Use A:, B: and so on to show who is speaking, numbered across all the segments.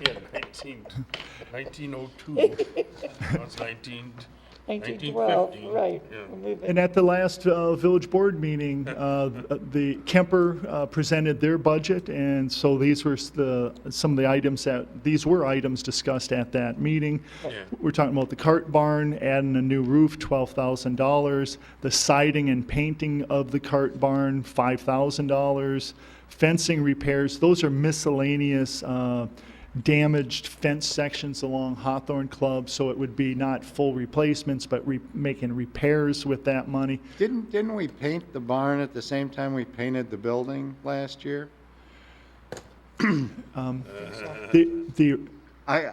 A: Yeah, 19, 1902. That was 19,
B: 1912,
A: 1915,
B: right.
A: yeah.
B: We're moving.
C: And at the last uh, village board meeting, uh, the Kemper uh, presented their budget, and so these were s- the, some of the items that, these were items discussed at that meeting. We're talking about the cart barn, adding a new roof, $12,000, the siding and painting of the cart barn, $5,000, fencing repairs, those are miscellaneous uh, damaged fence sections along Hawthorne Club, so it would be not full replacements, but re- making repairs with that money.
D: Didn't, didn't we paint the barn at the same time we painted the building last year?
C: The, the,
D: I,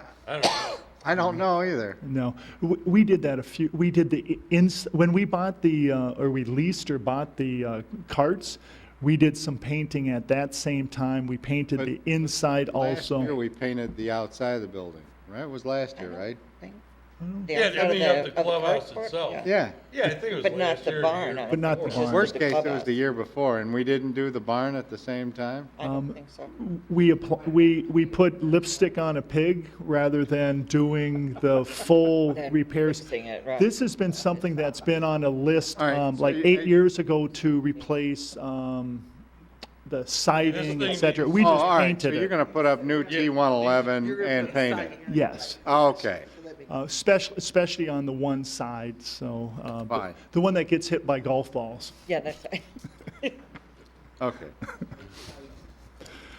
D: I don't know either.
C: no, W- we did that a few, we did the, i- ins, when we bought the, uh, or we leased or bought the uh, carts, we did some painting at that same time. We painted
D: But-
C: the inside also.
D: Last year, we painted the outside of the building, right? It was last year, right?
A: Yeah, I mean,
B: of
A: at the clubhouse itself.
D: Yeah.
A: Yeah, I think it was
B: But not
A: last
B: the
A: year or
B: barn,
A: year
B: I don't
C: But not the
A: before.
C: barn.
D: Worst
B: the
D: case, it was
B: clubhouse.
D: the year before, and we didn't do the barn at the same time?
B: I
C: Um,
B: don't think so.
C: We, appl- we, we put lipstick on a pig rather than doing the full
B: Then
C: repairs.
B: fixing it, right.
C: This has been something that's been on a list,
D: All right,
C: um,
D: so
C: like
D: you- I-
C: eight years ago to replace, um, the siding,
A: thing
C: et cetera. We
D: Oh,
C: just
D: all right,
C: painted
D: So you're
C: it.
D: going to put up new T111 and paint it?
C: Yes,
D: Okay.
C: uh, especially, especially on the one side, so, uh, but
D: Fine.
C: the one that gets hit by golf balls.
B: Yeah, that's right.
D: Okay.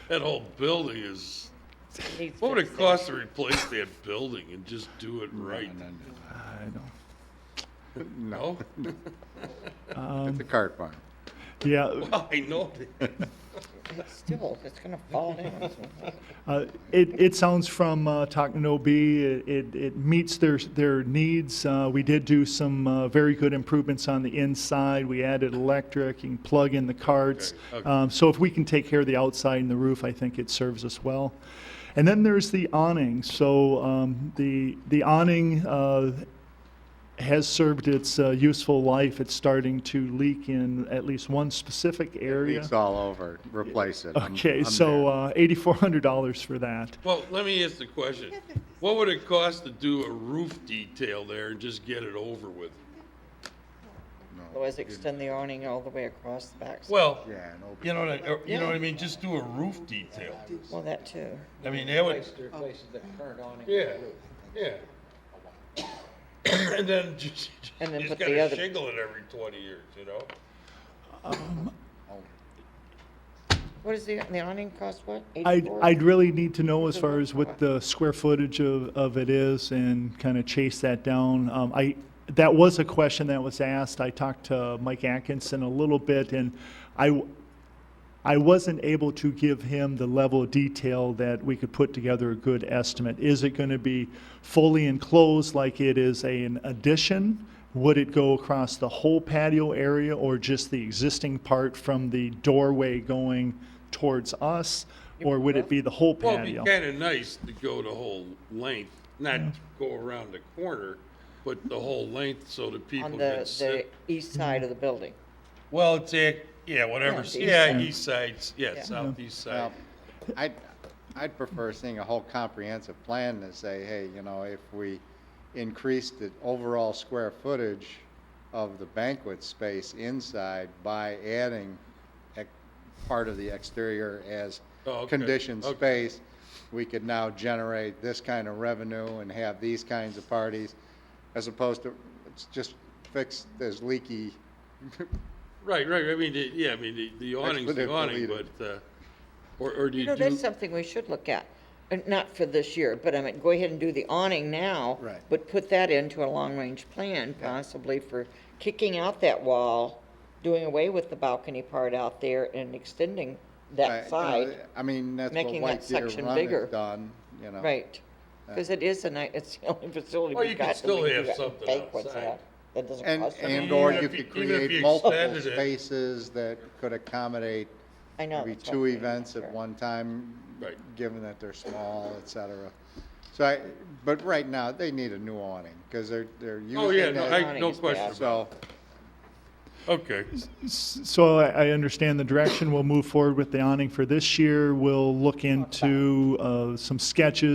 A: That whole building is,
B: Needs
A: what would it
B: fixing.
A: cost to replace that building and just do it right?
C: I don't.
D: No,
A: No?
D: it's a cart barn.
C: Yeah,
A: I know.
B: It's Still, it's gonna fall down.
C: Uh, It, it sounds from uh, Talking to OB, it, it- it meets their, their needs. Uh, We did do some uh, very good improvements on the inside. We added electric, you can plug in the carts.
A: Okay, okay.
C: Um, So if we can take care of the outside and the roof, I think it serves us well. And then there's the awning. So um, the, the awning uh, has served its uh, useful life. It's starting to leak in at least one specific area.
D: Leaks all over, replace it. I'm-
C: Okay,
D: I'm
C: so
D: there.
C: uh, $8,400 for that.
A: Well, let me ask the question. What would it cost to do a roof detail there and just get it over with?
B: Otherwise, extend the awning all the way across the back.
A: Well,
D: Yeah, an open-
A: you know, what I- or- you know what I mean, just do a roof detail.
B: Well, that too.
A: I mean, that would,
E: Replace- replace the current awning.
A: Yeah, yeah. And then just,
B: And then
A: you
B: put
A: just
B: the
A: gotta
B: other-
A: shingle it every twenty years, you know?
B: What is the, the awning cost, what?
C: I'd,
B: 84?
C: I'd really need to know as far as what the square footage of, of it is and kind of chase that down. Um, I, that was a question that was asked. I talked to Mike Atkinson a little bit and I, w- I wasn't able to give him the level of detail that we could put together a good estimate. Is it going to be fully enclosed like it is a- an addition? Would it go across the whole patio area or just the existing part from the doorway going towards us? Or would it be the whole
A: Well, it'd be
C: patio?
A: kinda nice to go the whole length, not go around the corner, but the whole length so that
B: On
A: people can
B: the, the
A: sit.
B: east side of the building.
A: Well, it's, a- yeah, whatever,
B: the east
A: yeah,
B: side.
A: east sides, yeah,
B: Yeah.
A: southeast side.
D: Well, I'd, I'd prefer seeing a whole comprehensive plan to say, hey, you know, if we increase the overall square footage of the banquet space inside by adding ec- part of the exterior as
A: Oh, okay,
D: conditioned
A: okay.
D: space, we could now generate this kind of revenue and have these kinds of parties, as opposed to, it's just fix this leaky,
A: Right, right, I mean, the- yeah, I mean, the- the awning's the
D: Expletive
A: awning,
D: deleted.
A: but, uh, or, or do
B: You
A: you
B: know, that's
A: do,
B: something we should look at. Uh, Not for this year, but I mean, go ahead and do the awning now.
D: Right.
B: But put that into a long-range plan possibly for kicking out that wall, doing away with the balcony part out there and extending
D: I- you
B: that
D: know,
B: side.
D: I mean, that's what
B: making that
D: White Deer
B: section
D: Run
B: bigger.
D: has done, you know.
B: Right. Because it is a night, it's the only facility
A: Well, you
B: we've
A: can
B: got. that we
A: still
B: can
A: have
B: do that
A: something
B: banquets
A: outside.
B: at. That doesn't
D: And,
B: cost
D: and
B: anything.
D: or
A: Even
D: you
A: if you-
D: could
A: even if you
D: create multiple
A: expanded it.
D: spaces that could accommodate
B: I know.
D: maybe
B: that's what
D: two
B: I'm saying,
D: events
B: sure.
D: at one time,
A: Right.
D: given that they're small, et cetera. So I, but right now, they need a new awning, because they're, they're using.
A: oh, yeah, no,
D: it,
A: I, no
B: awning's
A: question,
B: bad.
A: about
D: So,
A: it. okay.
C: So I, I understand the direction. We'll move forward with the awning for this year. We'll look into, uh, some sketches